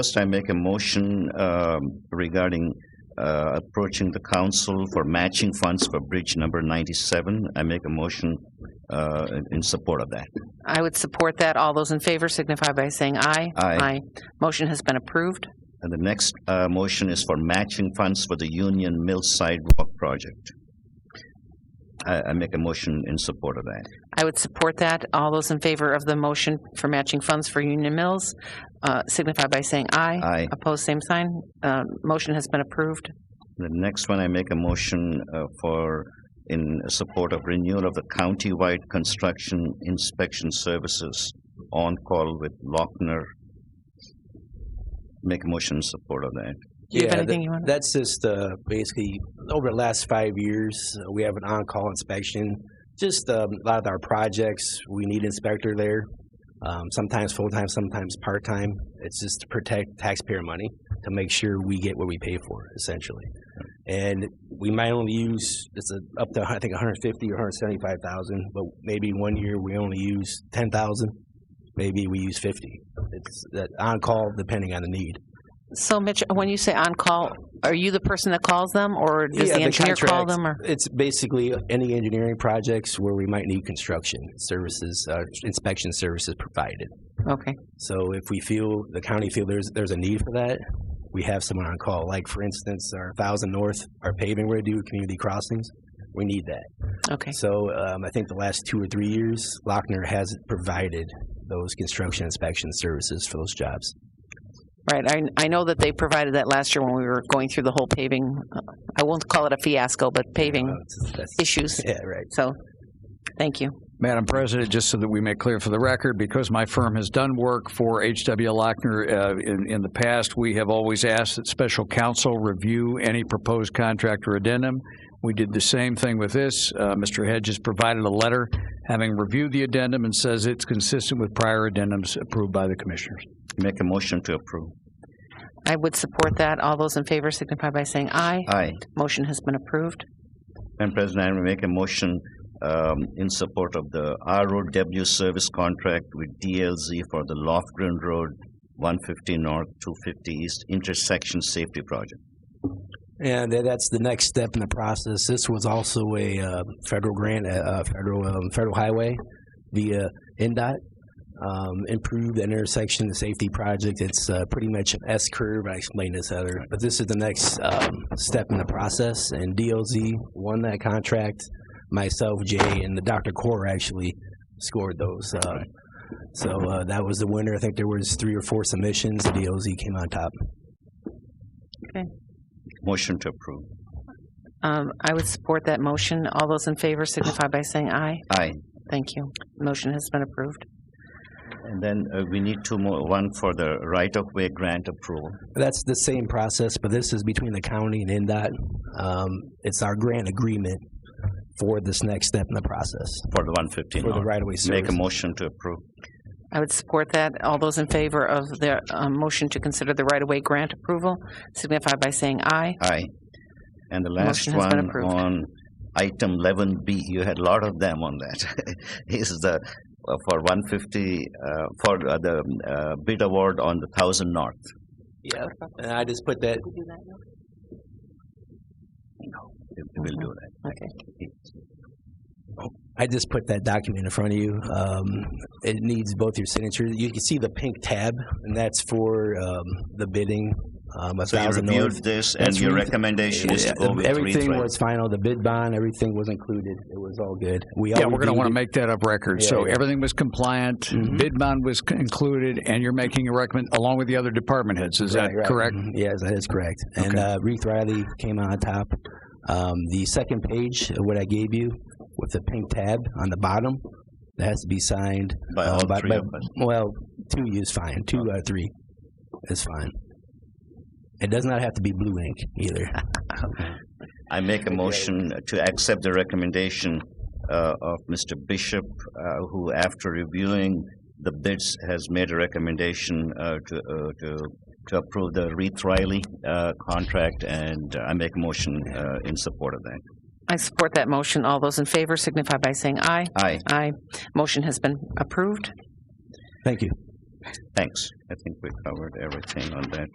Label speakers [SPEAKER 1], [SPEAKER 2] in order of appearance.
[SPEAKER 1] First, I make a motion um, regarding uh, approaching the council for matching funds for bridge number 97. I make a motion uh, in- in support of that.
[SPEAKER 2] I would support that. All those in favor signify by saying aye.
[SPEAKER 1] Aye.
[SPEAKER 2] Motion has been approved.
[SPEAKER 1] And the next uh, motion is for matching funds for the Union Mill Sidewalk Project. I I make a motion in support of that.
[SPEAKER 2] I would support that. All those in favor of the motion for matching funds for Union Mills uh, signify by saying aye.
[SPEAKER 1] Aye.
[SPEAKER 2] Opposed, same sign. Uh, Motion has been approved.
[SPEAKER 1] The next one, I make a motion uh, for, in support of renewal of the countywide construction inspection services on-call with Lochner. Make a motion in support of that.
[SPEAKER 2] Do you have
[SPEAKER 3] Yeah,
[SPEAKER 2] anything
[SPEAKER 3] that-
[SPEAKER 2] you want?
[SPEAKER 3] That's just uh, basically over the last five years, uh, we have an on-call inspection. Just um, a lot of our projects, we need inspector there. Um, sometimes full-time, sometimes part-time. It's just to protect taxpayer money to make sure we get what we pay for, essentially. And we might only use it's a, up to I think 150 or 175 thousand, but maybe one year we only use 10 thousand. Maybe we use 50. It's that on-call depending on the need.
[SPEAKER 2] So Mitch, when you say on-call, are you the person that calls them or does
[SPEAKER 3] Yeah,
[SPEAKER 2] the
[SPEAKER 3] the
[SPEAKER 2] engineer call
[SPEAKER 3] contracts.
[SPEAKER 2] them? or
[SPEAKER 3] It's basically any engineering projects where we might need construction services, uh, inspection services provided.
[SPEAKER 2] Okay,
[SPEAKER 3] So if we feel, the county feel there's, there's a need for that, we have someone on call. Like, for instance, our Thousand North, our paving we do, community crossings, we need that.
[SPEAKER 2] okay.
[SPEAKER 3] So um, I think the last two or three years, Lochner has provided those construction inspection services for those jobs.
[SPEAKER 2] Right, I, I know that they provided that last year when we were going through the whole paving, uh, I won't call it a fiasco, but
[SPEAKER 3] Uh,
[SPEAKER 2] paving
[SPEAKER 3] it's- that's-
[SPEAKER 2] issues.
[SPEAKER 3] Yeah, right.
[SPEAKER 2] So, thank you.
[SPEAKER 4] Madam President, just so that we make clear for the record, because my firm has done work for H.W. Lochner uh, in in the past, we have always asked that special counsel review any proposed contract or addendum. We did the same thing with this. Uh, Mr. Hedges provided a letter having reviewed the addendum and says it's consistent with prior addendums approved by the commissioners.
[SPEAKER 1] Make a motion to approve.
[SPEAKER 2] I would support that. All those in favor signify by saying aye.
[SPEAKER 1] Aye.
[SPEAKER 2] Motion has been approved.
[SPEAKER 1] Madam President, I will make a motion um, in support of the ROW service contract with DLZ for the Lofgren Road, 150 North, 250 East intersection safety project.
[SPEAKER 3] And tha- that's the next step in the process. This was also a uh, federal grant, a, a federal um, federal highway via NDOT. Um, improved intersection and safety project. It's uh, pretty much an S curve. I explained this other, but this is the next um, step in the process. And DOZ won that contract. Myself, Jay, and the Dr. Core actually scored those. Uh, so uh, that was the winner. I think there was three or four submissions. DOZ came on top.
[SPEAKER 1] Motion to approve.
[SPEAKER 2] Um, I would support that motion. All those in favor signify by saying aye.
[SPEAKER 1] Aye.
[SPEAKER 2] Thank you. Motion has been approved.
[SPEAKER 1] And then uh, we need two more, one for the right-of-way grant approval.
[SPEAKER 3] That's the same process, but this is between the county and NDOT. Um, it's our grant agreement for this next step in the process
[SPEAKER 1] For the 150
[SPEAKER 3] for the
[SPEAKER 1] North.
[SPEAKER 3] right of way
[SPEAKER 1] Make a
[SPEAKER 3] service.
[SPEAKER 1] motion to approve.
[SPEAKER 2] I would support that. All those in favor of the uh, motion to consider the right-of-way grant approval signify by saying aye.
[SPEAKER 1] Aye. And the last
[SPEAKER 2] Motion has been
[SPEAKER 1] one
[SPEAKER 2] approved.
[SPEAKER 1] on item 11B, you had a lot of them on that, is the, uh, for 150, uh, for uh, the uh, bid award on the 1,000 North.
[SPEAKER 3] Yeah, and I just put that,
[SPEAKER 1] We'll do that.
[SPEAKER 2] Okay.
[SPEAKER 3] I just put that document in front of you. Um, it needs both your signatures. You can see the pink tab, and that's for, um, the bidding. Um, a
[SPEAKER 1] So you
[SPEAKER 3] thousand north.
[SPEAKER 1] reviewed this and
[SPEAKER 3] That's
[SPEAKER 1] your
[SPEAKER 3] reason-
[SPEAKER 1] recommendation is to go with three
[SPEAKER 3] Everything
[SPEAKER 1] threads.
[SPEAKER 3] was final. The bid bond, everything was included. It was all good. We all
[SPEAKER 4] Yeah, we're going to
[SPEAKER 3] reviewed
[SPEAKER 4] want
[SPEAKER 3] it.
[SPEAKER 4] to make that up record.
[SPEAKER 3] Yeah,
[SPEAKER 4] So
[SPEAKER 3] yeah.
[SPEAKER 4] everything was compliant,
[SPEAKER 3] Mhm.
[SPEAKER 4] bid bond was c- included, and you're making a recommend, along with the other department heads. Is that
[SPEAKER 3] Right, right.
[SPEAKER 4] correct?
[SPEAKER 3] Mhm. Yes, that is correct. And
[SPEAKER 4] Okay.
[SPEAKER 3] uh, Ruth Riley came on top. Um, the second page of what I gave you with the pink tab on the bottom, that has to be signed.
[SPEAKER 1] By
[SPEAKER 3] uh,
[SPEAKER 1] all
[SPEAKER 3] by-
[SPEAKER 1] three
[SPEAKER 3] by-
[SPEAKER 1] of us.
[SPEAKER 3] Well, two is fine. Two out of three is fine. It does not have to be blue ink either.
[SPEAKER 1] I make a motion to accept the recommendation uh, of Mr. Bishop, uh, who after reviewing the bids has made a recommendation uh, to uh, to to approve the Reith Riley uh, contract, and I make a motion uh, in support of that.
[SPEAKER 2] I support that motion. All those in favor signify by saying aye.
[SPEAKER 1] Aye.
[SPEAKER 2] Aye. Motion has been approved.
[SPEAKER 3] Thank you.
[SPEAKER 1] Thanks. I think we covered everything on that.